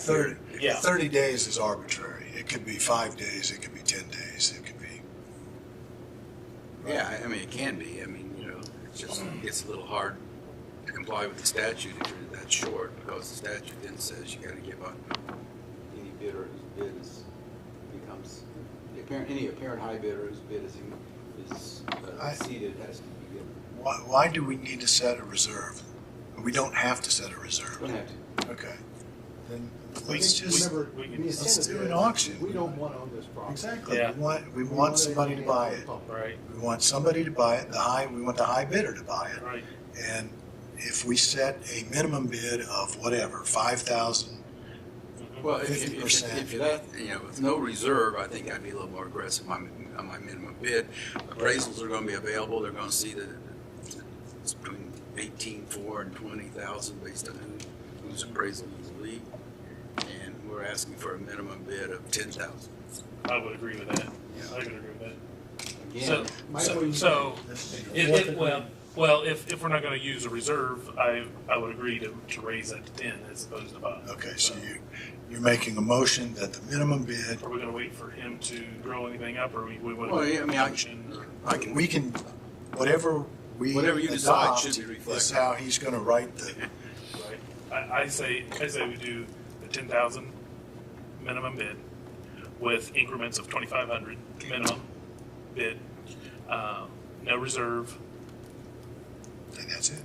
Thirty, Yeah. thirty days is arbitrary. It could be five days, it could be ten days, it could be. Yeah, I- I mean, it can be, I mean, you know, it's just, it's a little hard to comply with the statute if you're that short, because the statute then says you gotta give up. Any bidder whose bid is, becomes, the apparent, any apparent high bidder whose bid is, is uh, I- exceeded has to be given. Why, why do we need to set a reserve? We don't have to set a reserve. Don't have to. Okay. Then We let's can- just, Remember, we can- when you let's send it do an to- auction. We don't want to own this property. exactly. Yeah. We want, we want want somebody to buy it. Right, We want somebody to buy it, the high, we want the high bidder to buy it. right. And if we set a minimum bid of whatever, five thousand, Well, if, if, 50%. if, if that, you know, with no reserve, I think I'd be a little more aggressive on, my- on my minimum bid. Appraisals are gonna be available, they're gonna see that it's between eighteen-four and twenty thousand based on who, whose appraisal is lead. And we're asking for a minimum bid of ten thousand. I would agree with that. I would agree with that. So, Again, My so, point- so, it, if, it, well, well, if, if we're not gonna use a reserve, I, I would agree to, to raise that to ten as opposed to five. Okay, so you, you're making a motion that the minimum bid, Are we gonna wait for him to grow anything up or we, we wanna? well, yeah, I mean, I Auction? can, I can, we can, whatever we Whatever you decide adopt should be reflected. Is how he's gonna write the, Right. I, I say, I say we do the ten thousand minimum bid with increments of twenty-five hundred minimum bid, um, no reserve, and that's it.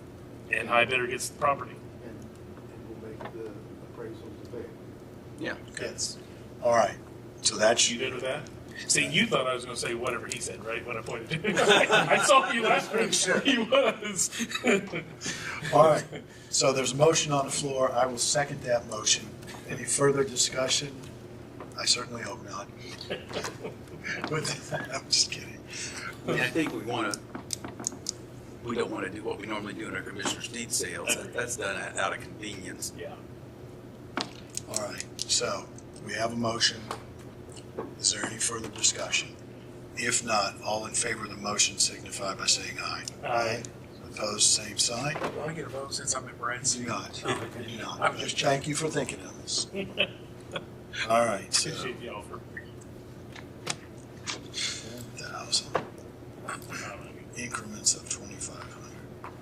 and high bidder gets the property. And and we'll make the appraisals available. yeah. Yes. All right, so that's, You good with that? See, you thought I was gonna say whatever he said, right, when I pointed to him. I saw you last week, Sure. he was. all right. So there's a motion on the floor. I will second that motion. Any further discussion? I certainly hope not. With- I'm just kidding. I mean, I think we want to, we don't want to do what we normally do in our commissioners' deed sales. That- That's done out of convenience. Yeah. All right, so we have a motion. Is there any further discussion? If not, all in favor of the motion signify by saying aye. Aye. Opposed, same sign? Do I get a vote since I'm in Brent's? Do not. Do not. Oh, I'm just Thank you for thinking of us. All right, so Appreciate the offer. 10,000 increments of 2,500.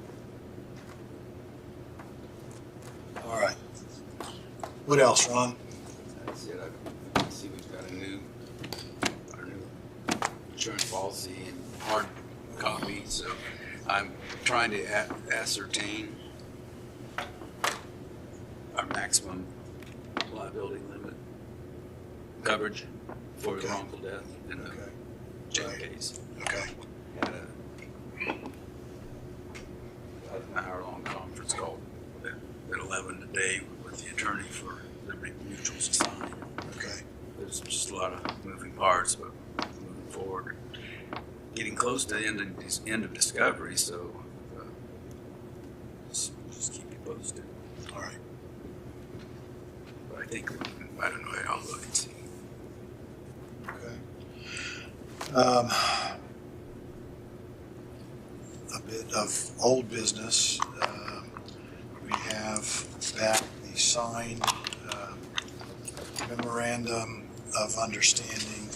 All right. What else, Ron? That's it. I I see we've got a new, our new insurance policy and hard copy, so I'm trying to a- ascertain our maximum liability limit coverage for Okay. wrongful death in the Okay, jail Right. case. okay. had a an hour-long conference call at at eleven today with the attorney for Liberty Mutual Society. Okay. There's just a lot of moving parts, but moving forward. Getting close to the end of, dis- end of discovery, so, uh, just, just keep you posted. All right. But I think, I don't know, I'll look and see. Okay. Um, A bit of old business. Um, We have back the signed um, memorandum of understanding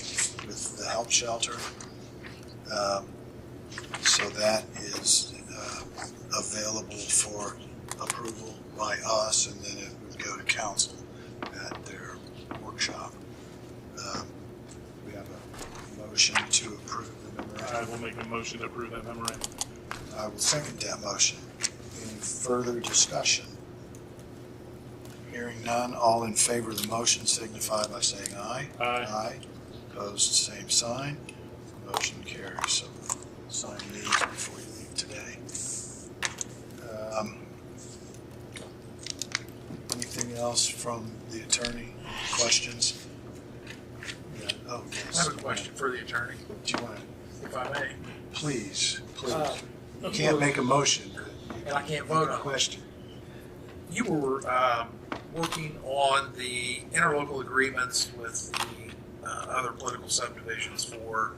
with the help shelter. Um, So that is uh, available for approval by us, and then it would go to council at their workshop. Um, we have a motion to approve the I memorandum. will make a motion to approve that memorandum. I will second that motion. Any further discussion? Hearing none, all in favor of the motion signify by saying aye. Aye. Opposed, same sign. Motion carries. So sign these before you leave today. Um, Anything else from the attorney? Questions? Yeah, Oh, yes. I have a question for the attorney, Do you want to? if I may. Please, Uh, please. You can't make a motion, And I can't but vote a on it. question. You were um, working on the interlocal agreements with the uh, other political subdivisions for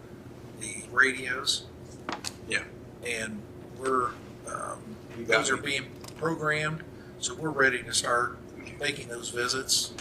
the radios. Yeah. And we're, um, You got those are me. being programmed, so we're ready to start making those visits.